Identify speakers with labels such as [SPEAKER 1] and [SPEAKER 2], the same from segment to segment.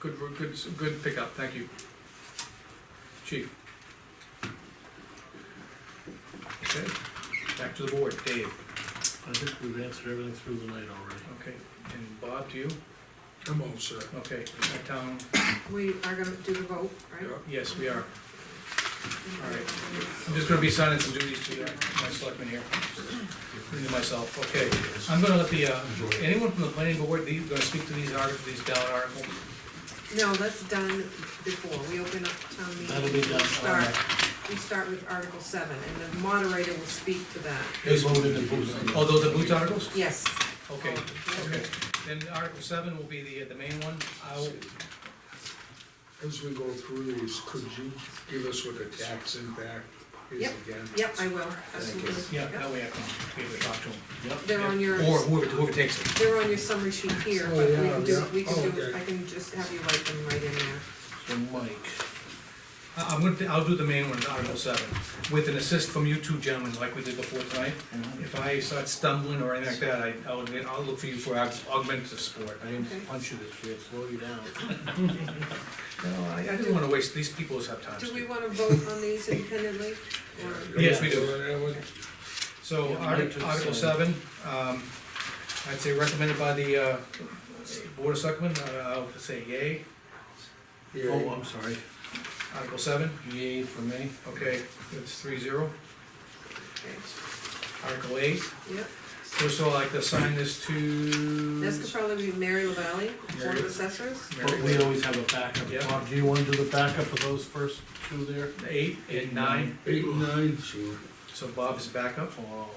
[SPEAKER 1] Good, good, good pickup, thank you. Chief. Okay, back to the board, Dave,
[SPEAKER 2] I think we've answered everything through the night already.
[SPEAKER 1] okay, and Bob, to you,
[SPEAKER 3] I'm all set.
[SPEAKER 1] okay, our town,
[SPEAKER 4] We are gonna do the vote, right?
[SPEAKER 3] Yeah.
[SPEAKER 1] yes, we are. all right. I'm
[SPEAKER 4] right.
[SPEAKER 1] just gonna be signing some duties to my selectmen here, to myself, okay. I'm gonna let the, uh, anyone from the planning board, these, gonna speak to these articles, these ballot articles?
[SPEAKER 4] No, that's done before, we open up town meeting.
[SPEAKER 2] That'll be done.
[SPEAKER 4] We Start, we start with Article seven, and the moderator will speak to that,
[SPEAKER 2] They voted the boots.
[SPEAKER 1] Oh, those are Boots articles?
[SPEAKER 4] yes.
[SPEAKER 1] Okay, okay. Then Article seven will be the, the main one. I'll,
[SPEAKER 3] As we go through these, could you give us what the tax impact is
[SPEAKER 4] Yep,
[SPEAKER 3] again?
[SPEAKER 4] Yep, I will,
[SPEAKER 3] Thank you.
[SPEAKER 4] absolutely.
[SPEAKER 1] yeah,
[SPEAKER 4] Yep.
[SPEAKER 1] that way I can be able to talk to him.
[SPEAKER 2] Yep.
[SPEAKER 4] They're on your,
[SPEAKER 1] Or whoever, whoever takes it.
[SPEAKER 4] they're on your summary sheet here,
[SPEAKER 3] Oh,
[SPEAKER 4] but we
[SPEAKER 3] yeah,
[SPEAKER 4] can do,
[SPEAKER 3] yeah. Oh,
[SPEAKER 4] we can do,
[SPEAKER 3] Okay.
[SPEAKER 4] I can just have you write them right in there.
[SPEAKER 2] So Mike,
[SPEAKER 1] I- I'm gonna, I'll do the main one, Article seven, with an assist from you two gentlemen, like we did before tonight. If I start stumbling or anything like that, I, I'll, I'll look for you for aug- augmentative support.
[SPEAKER 2] I didn't punch you this year, slow you down.
[SPEAKER 1] No, I, I didn't wanna waste, these people just have time.
[SPEAKER 4] Do we
[SPEAKER 1] Steve.
[SPEAKER 4] wanna vote on these independently, or?
[SPEAKER 1] Yes, we do.
[SPEAKER 3] That one?
[SPEAKER 1] So,
[SPEAKER 2] Yeah,
[SPEAKER 1] Arti-
[SPEAKER 2] Mike was,
[SPEAKER 1] Article
[SPEAKER 2] uh,
[SPEAKER 1] seven, um, I'd say recommended by the, uh, Board of Selectmen, uh, I'll say yay.
[SPEAKER 2] Oh,
[SPEAKER 3] Yeah,
[SPEAKER 2] I'm sorry,
[SPEAKER 1] Article seven,
[SPEAKER 2] yay for me.
[SPEAKER 1] okay, that's three zero.
[SPEAKER 4] Okay,
[SPEAKER 1] Article eight,
[SPEAKER 4] Yep,
[SPEAKER 1] first of all, I'd like to assign this to.
[SPEAKER 4] this could probably be Mary LaValley, Board
[SPEAKER 1] Mary.
[SPEAKER 4] of Assessors.
[SPEAKER 2] But we always have a backup.
[SPEAKER 1] Yeah.
[SPEAKER 2] Bob, do you wanna do the backup of those first two there?
[SPEAKER 1] Eight and nine,
[SPEAKER 3] eight and nine, sure.
[SPEAKER 1] so Bob is backup.
[SPEAKER 4] Oh,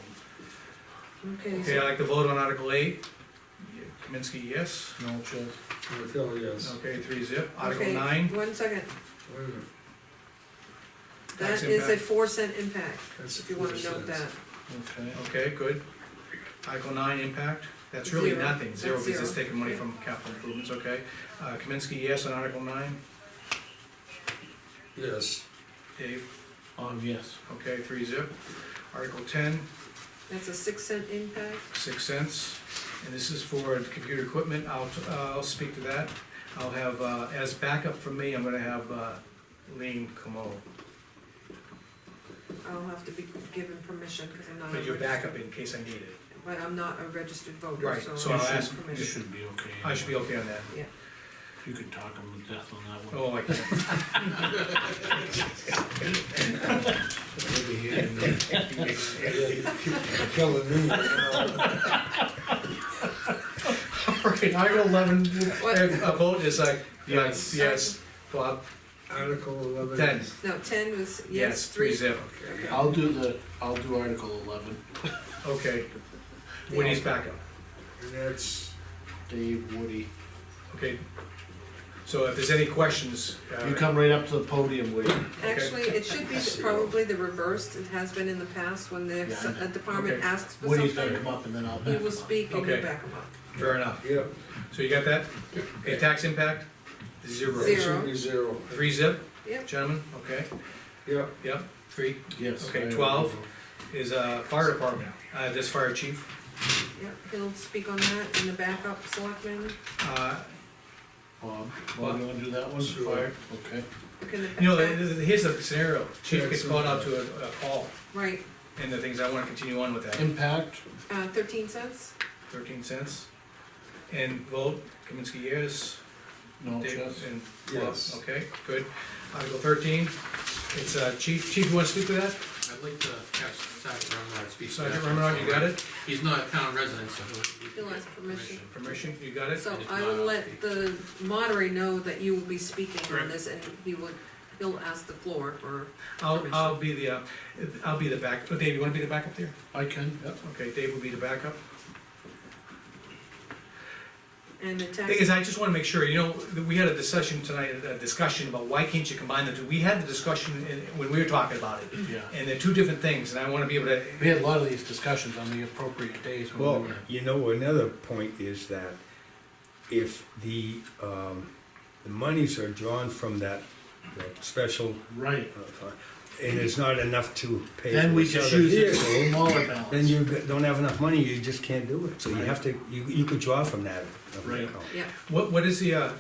[SPEAKER 2] Um,
[SPEAKER 4] Okay,
[SPEAKER 1] Okay,
[SPEAKER 4] so
[SPEAKER 1] I'd like to vote on Article eight. Kaminsky, yes.
[SPEAKER 2] no, just,
[SPEAKER 3] Martell, yes.
[SPEAKER 1] Okay, three zip. Article
[SPEAKER 4] Okay,
[SPEAKER 1] nine,
[SPEAKER 4] One second,
[SPEAKER 3] Wait a minute,
[SPEAKER 1] Tax
[SPEAKER 4] that is a
[SPEAKER 1] impact.
[SPEAKER 4] four cent impact,
[SPEAKER 3] that's
[SPEAKER 4] if you wanna
[SPEAKER 3] four
[SPEAKER 4] note
[SPEAKER 3] cents.
[SPEAKER 4] that.
[SPEAKER 2] okay.
[SPEAKER 1] okay, good. Article nine, impact. That's really
[SPEAKER 4] Zero.
[SPEAKER 1] nothing, zero
[SPEAKER 4] That's
[SPEAKER 1] because it's
[SPEAKER 4] zero.
[SPEAKER 1] taking money from capital improvements, okay? Uh, Kaminsky, yes on Article nine.
[SPEAKER 3] Yes,
[SPEAKER 1] Dave,
[SPEAKER 2] Um, yes,
[SPEAKER 1] okay, three zip. Article ten,
[SPEAKER 4] That's a six cent impact,
[SPEAKER 1] six cents. And this is for computer equipment. I'll, uh, I'll speak to that. I'll have, uh, as backup for me, I'm gonna have, uh, Lean Camo.
[SPEAKER 4] I'll have to be given permission, cause I'm not.
[SPEAKER 1] But
[SPEAKER 4] a
[SPEAKER 1] your
[SPEAKER 4] regis-
[SPEAKER 1] backup in case I need it.
[SPEAKER 4] But I'm not a registered voter,
[SPEAKER 1] Right, so
[SPEAKER 4] so
[SPEAKER 1] I'll
[SPEAKER 4] I'll ask
[SPEAKER 1] ask-
[SPEAKER 2] you
[SPEAKER 4] permission.
[SPEAKER 2] should be okay.
[SPEAKER 1] I should be okay on that.
[SPEAKER 2] You could talk him to death on that one.
[SPEAKER 1] Oh, I can't.
[SPEAKER 3] over here. Killing me.
[SPEAKER 1] All right, Article eleven,
[SPEAKER 4] What?
[SPEAKER 1] a a vote is like, yes,
[SPEAKER 2] Yes.
[SPEAKER 1] yes, Bob,
[SPEAKER 3] Article eleven.
[SPEAKER 1] ten,
[SPEAKER 4] No, ten was
[SPEAKER 1] yes,
[SPEAKER 4] yes,
[SPEAKER 1] three
[SPEAKER 4] three.
[SPEAKER 1] zip.
[SPEAKER 3] Okay.
[SPEAKER 2] I'll do the, I'll do Article eleven.
[SPEAKER 1] Okay, Woody's backup,
[SPEAKER 3] And that's,
[SPEAKER 2] Dave, Woody.
[SPEAKER 1] okay. So if there's any questions, uh,
[SPEAKER 2] You come right up to the podium, Woody.
[SPEAKER 4] Actually, it should be
[SPEAKER 3] Zero.
[SPEAKER 4] probably the reversed, it has been in the past when the,
[SPEAKER 2] Yeah, I know.
[SPEAKER 4] a department
[SPEAKER 1] Okay.
[SPEAKER 4] asks for
[SPEAKER 2] Woody's gonna
[SPEAKER 4] something,
[SPEAKER 2] come up and then I'll back
[SPEAKER 4] he
[SPEAKER 2] him
[SPEAKER 4] will
[SPEAKER 2] up.
[SPEAKER 4] speak and you
[SPEAKER 1] Okay.
[SPEAKER 4] back him up.
[SPEAKER 1] fair enough.
[SPEAKER 3] yeah,
[SPEAKER 1] So you got that? Okay, tax impact,
[SPEAKER 3] it
[SPEAKER 1] zero.
[SPEAKER 4] Zero.
[SPEAKER 3] should be zero,
[SPEAKER 1] Three zip,
[SPEAKER 4] Yep,
[SPEAKER 1] gentlemen, okay,
[SPEAKER 3] yeah.
[SPEAKER 1] yep, three
[SPEAKER 2] Yes.
[SPEAKER 1] Okay,
[SPEAKER 2] I-
[SPEAKER 1] 12. is, uh, fire department, uh, this fire chief.
[SPEAKER 4] yep, he'll speak on that in the backup selectmen,
[SPEAKER 1] Uh,
[SPEAKER 2] Bob, Bob, you wanna do that one?
[SPEAKER 3] Sure.
[SPEAKER 2] Fire? Okay.
[SPEAKER 4] look in the.
[SPEAKER 1] you know, th-
[SPEAKER 4] tax-
[SPEAKER 1] th- here's the scenario, chief gets called out to a, a call,
[SPEAKER 4] Right,
[SPEAKER 1] and the things I wanna continue on with that.
[SPEAKER 2] Impact,
[SPEAKER 4] uh, thirteen cents,
[SPEAKER 1] thirteen cents. And vote, Kaminsky, yes.
[SPEAKER 2] no,
[SPEAKER 1] Dave,
[SPEAKER 2] just,
[SPEAKER 1] and
[SPEAKER 3] Yes.
[SPEAKER 1] Bob, Okay, good. Article thirteen, it's, uh, Chief, Chief, you wanna speak to that?
[SPEAKER 5] I'd like to have Sergeant Remrod speak. to
[SPEAKER 1] Sergeant
[SPEAKER 5] that.
[SPEAKER 1] Romanov, you got it?
[SPEAKER 5] He's not a town resident, so he'll.
[SPEAKER 4] He'll ask permission.
[SPEAKER 1] Permission, you got it?
[SPEAKER 4] so I will let the moderator know that you will be speaking on
[SPEAKER 5] Correct.
[SPEAKER 4] this, and he will, he'll ask the floor for
[SPEAKER 1] I'll, I'll be the, uh, I'll be the back, oh, Dave, you wanna be the backup there?
[SPEAKER 2] I can, yep.
[SPEAKER 1] Okay, Dave will be the backup.
[SPEAKER 4] And the
[SPEAKER 1] Thing is,
[SPEAKER 4] tax,
[SPEAKER 1] I just wanna make sure, you know, that we had a discussion tonight, a discussion about why can't you combine the two? We had the discussion in, when we were talking about it,
[SPEAKER 2] Yeah,
[SPEAKER 1] and they're two different things, and I wanna be able to,
[SPEAKER 2] we had a lot of these discussions on the appropriate days when
[SPEAKER 6] Well,
[SPEAKER 2] we were.
[SPEAKER 6] you know, another point is that if the, um, the monies are drawn from that, that special,
[SPEAKER 2] Right,
[SPEAKER 6] uh, fund, and there's not enough to pay
[SPEAKER 2] then
[SPEAKER 6] for
[SPEAKER 2] we
[SPEAKER 6] each
[SPEAKER 2] just
[SPEAKER 6] other
[SPEAKER 2] use the
[SPEAKER 6] vehicle,
[SPEAKER 2] smaller
[SPEAKER 6] then
[SPEAKER 2] balance.
[SPEAKER 6] you g- don't have enough money, you just can't do it, so you
[SPEAKER 2] Right.
[SPEAKER 6] have to, you, you could draw from that. uh,
[SPEAKER 2] Right.
[SPEAKER 6] account.
[SPEAKER 4] yeah.
[SPEAKER 1] what, what is the, uh,